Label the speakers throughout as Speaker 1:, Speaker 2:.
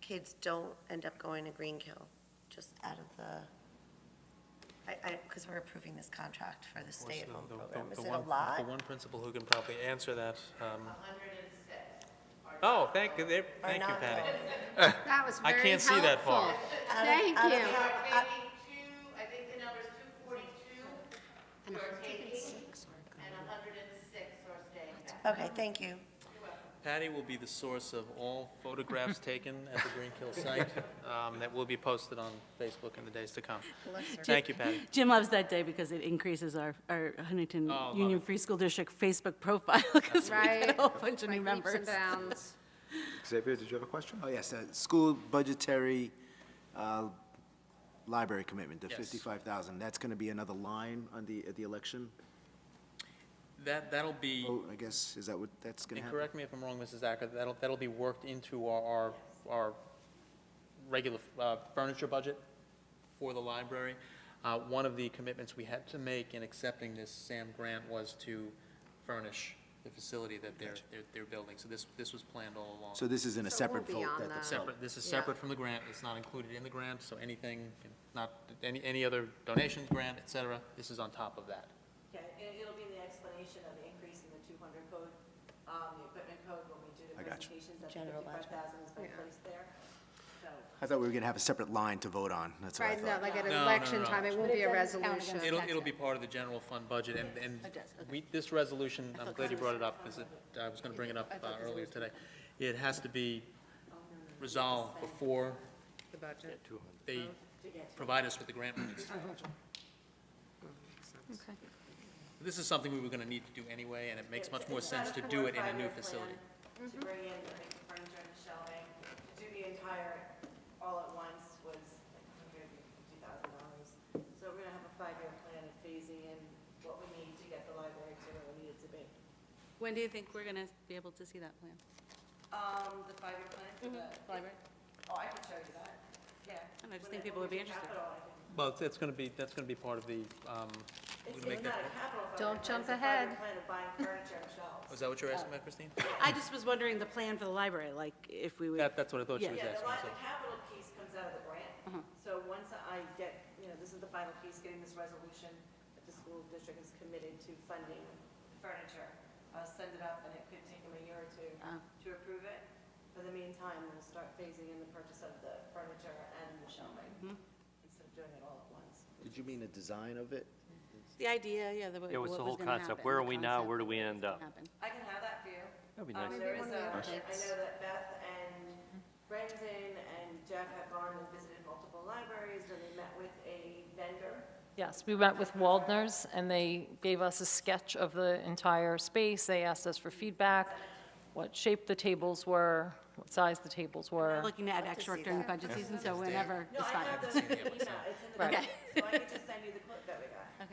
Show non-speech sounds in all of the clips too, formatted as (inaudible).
Speaker 1: kids don't end up going to Greenkill, just out of the, I, I, because we're approving this contract for the
Speaker 2: Of course,
Speaker 1: stay-at-home
Speaker 2: the- the-
Speaker 1: program.
Speaker 2: the
Speaker 1: Is it a
Speaker 2: one-
Speaker 1: lot?
Speaker 2: The one principal who can probably answer that. um, Oh, thank, you, there- thank you,
Speaker 1: not
Speaker 2: Patty.
Speaker 3: That was
Speaker 2: I
Speaker 3: very helpful.
Speaker 2: can't see that far.
Speaker 1: Out of-
Speaker 3: Thank
Speaker 1: out of
Speaker 3: you.
Speaker 1: how- out-
Speaker 4: Maybe two, I think the number's two forty-two
Speaker 3: And
Speaker 4: are
Speaker 3: 106 are
Speaker 4: and
Speaker 3: gone.
Speaker 4: hundred and six are staying back.
Speaker 1: Okay, thank you.
Speaker 2: Patty will be the source of all (laughs) photographs taken at the Greenkill site (laughs) um, that will be posted on Facebook in the days to come. Thank you, Patty.
Speaker 5: Jim loves that day because it increases our, our Huntington
Speaker 2: Oh, love
Speaker 5: Union
Speaker 2: it.
Speaker 5: Free School District Facebook profile (laughs) because we get a
Speaker 3: Right.
Speaker 5: whole bunch of
Speaker 3: Like
Speaker 5: new
Speaker 3: leaps and
Speaker 5: members.
Speaker 3: bounds.
Speaker 6: Xavier, did you have a question?
Speaker 7: Oh, yes, uh, school budgetary uh, library commitment, the
Speaker 2: Yes.
Speaker 7: 55,000, that's going to be another line on the, at the election?
Speaker 2: That, that'll be,
Speaker 7: Oh, I guess, is that what, that's going to
Speaker 2: and
Speaker 7: happen?
Speaker 2: correct me if I'm wrong, Mrs. Acker, that'll, that'll be worked into our, our, our regular uh, furniture budget for the library. Uh, One of the commitments we had to make in accepting this SAM grant was to furnish the facility that they're, they're- they're building. So this, this was planned all along.
Speaker 7: So this is in a
Speaker 3: So it
Speaker 7: separate
Speaker 3: will be
Speaker 7: vote?
Speaker 3: on
Speaker 7: that the-
Speaker 3: the-
Speaker 2: Separate, this is
Speaker 3: Yeah.
Speaker 2: separate from the grant, it's not included in the grant, so anything, not, any, any other donations, grant, et cetera, this is on top of that.
Speaker 8: Yeah, it, it'll be the explanation of the increase in the two hundred code, um, the equipment code when we do the
Speaker 7: I got you.
Speaker 8: presentations, that
Speaker 1: General
Speaker 8: fifty-five thousand has been placed there. So,
Speaker 7: I thought we were going to have a separate line to vote on, that's what I
Speaker 3: Right, no,
Speaker 7: thought.
Speaker 3: like at
Speaker 2: No, no,
Speaker 3: election
Speaker 2: no.
Speaker 3: time, it won't be a resolution.
Speaker 2: It'll, it'll be part of the general fund budget, and, and we, this resolution, I'm glad you brought it up, because it, I was gonna bring it up uh, earlier today. It has to be resolved before
Speaker 3: The budget.
Speaker 2: they provide us with the grant monies.
Speaker 3: Okay.
Speaker 2: This is something we were gonna need to do anyway, and it makes much more sense to do it in a new facility.
Speaker 8: To bring in the big furniture and the shelving, to do the entire, all at once was like hundred and fifty thousand dollars. So we're gonna have a five-year plan of phasing in what we need to get the library to where we need it to be.
Speaker 5: When do you think we're going to be able to see that plan?
Speaker 8: Um, the five-year plan for the.
Speaker 5: Library?
Speaker 8: Oh, I could show you that, yeah.
Speaker 5: I don't know, I just
Speaker 8: When
Speaker 5: think people would
Speaker 8: when we
Speaker 5: be
Speaker 8: do
Speaker 5: interested.
Speaker 8: capital, I can-
Speaker 2: Well, it's- it's gonna be, that's gonna be part of the, um, we're
Speaker 8: It's
Speaker 2: gonna make
Speaker 8: it's not
Speaker 2: that,
Speaker 8: a capital fund.
Speaker 3: Don't
Speaker 8: it's
Speaker 3: jump
Speaker 8: a five-year
Speaker 3: ahead.
Speaker 8: plan of buying furniture and shelves.
Speaker 2: was Oh, that what you were asking about, Christine?
Speaker 5: I just was wondering the plan for the library, like if we would.
Speaker 2: That, that's what I thought she
Speaker 5: Yeah.
Speaker 2: was
Speaker 8: Yeah, the
Speaker 2: asking,
Speaker 8: line,
Speaker 2: so.
Speaker 8: the capital piece comes out of the grant.
Speaker 3: Mm-hmm.
Speaker 8: So once I get, you know, this is the final piece, getting this resolution that the school district is committed to funding furniture. I'll send it up and it could take them a year or two
Speaker 3: Oh.
Speaker 8: to approve it. But in the meantime, we'll start phasing in the purchase of the furniture and the shelving
Speaker 3: Mm-hmm.
Speaker 8: instead of doing it all at once.
Speaker 7: Did you mean the design of it?
Speaker 5: The idea, yeah, the.
Speaker 9: It was the whole concept. Where are we now? Where do we end up?
Speaker 8: I can have that for you.
Speaker 9: That'd be
Speaker 8: Um,
Speaker 9: nice.
Speaker 8: There is a, I know that Beth and Brendan and Jeff have gone and visited multiple libraries, and they met with a vendor
Speaker 10: Yes, we went with Waldner's, and they gave us a sketch of the entire space. They asked us for feedback, what shape the tables were, what size the tables were.
Speaker 5: Looking to add extra work during budget season, so whenever
Speaker 8: No,
Speaker 5: is
Speaker 8: I
Speaker 5: fine.
Speaker 8: have those in the email, it's in the
Speaker 10: Right.
Speaker 8: quote, so I could just send you the quote that we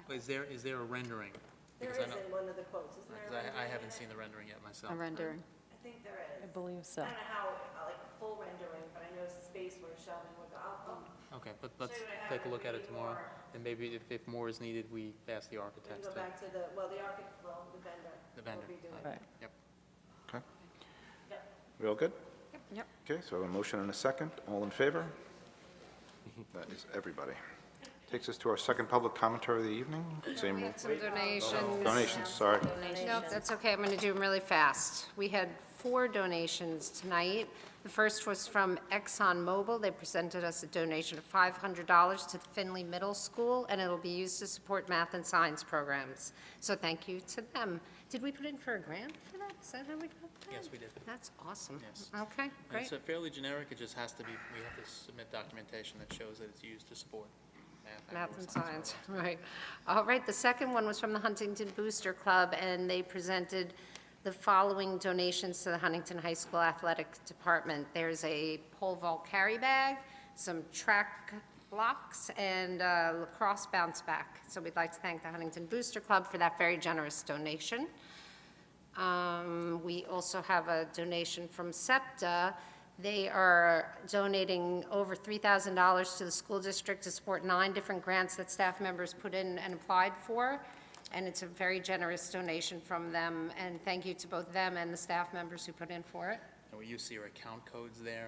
Speaker 8: got.
Speaker 2: Is there, is there a rendering?
Speaker 8: There
Speaker 2: Because
Speaker 8: is
Speaker 2: I know-
Speaker 8: in one of the quotes, isn't there?
Speaker 2: Because
Speaker 8: a
Speaker 2: I, I
Speaker 8: rendering
Speaker 2: haven't
Speaker 8: in
Speaker 2: seen the rendering yet myself.
Speaker 5: A rendering.
Speaker 8: it? I think there is.
Speaker 10: I believe
Speaker 8: I
Speaker 10: so.
Speaker 8: don't know how, uh, like, a full rendering, but I know space where shelving would go, I'll, I'll,
Speaker 2: Okay, but let's
Speaker 8: Should I
Speaker 2: take a
Speaker 8: have
Speaker 2: look at it
Speaker 8: maybe
Speaker 2: tomorrow,
Speaker 8: more?
Speaker 2: and maybe if, if more is needed, we ask the
Speaker 8: we can
Speaker 2: architects
Speaker 8: go
Speaker 2: to,
Speaker 8: back to the, well, the architect, well, the vendor.
Speaker 2: the vendor.
Speaker 8: Will be doing
Speaker 2: Uh,
Speaker 8: it.
Speaker 10: Right.
Speaker 2: Yep.
Speaker 6: Okay.
Speaker 8: Yep.
Speaker 6: We all good?
Speaker 3: Yep.
Speaker 6: Okay, so I have a motion and a second. All in favor? That is everybody. Takes us to our second public commentary of the evening. Same
Speaker 3: Some donations.
Speaker 6: donations, sorry.
Speaker 3: Nope, that's okay, I'm going to do them really fast. We had four donations tonight. The first was from ExxonMobil. They presented us a donation of $500 to Finley Middle School, and it'll be used to support math and science programs. So thank you to them. Did we put in for a grant for that? Is that how we got that?
Speaker 2: Yes, we did.
Speaker 3: That's awesome.
Speaker 2: Yes.
Speaker 3: Okay,
Speaker 2: And
Speaker 3: great.
Speaker 2: It's uh, fairly generic, it just has to be, we have to submit documentation that shows that it's used to support math.
Speaker 3: Math
Speaker 2: or
Speaker 3: and science, (laughs) right. All right, the second one was from the Huntington Booster Club, and they presented the following donations to the Huntington High School Athletic Department. There's a pole vault carry bag, some track blocks, and a lacrosse bounce back. So we'd like to thank the Huntington Booster Club for that very generous donation. Um, We also have a donation from SEPTA. They are donating over $3,000 to the school district to support nine different grants that staff members put in and applied for, and it's a very generous donation from them, and thank you to both them and the staff members who put in for it.
Speaker 2: And we use your account codes there,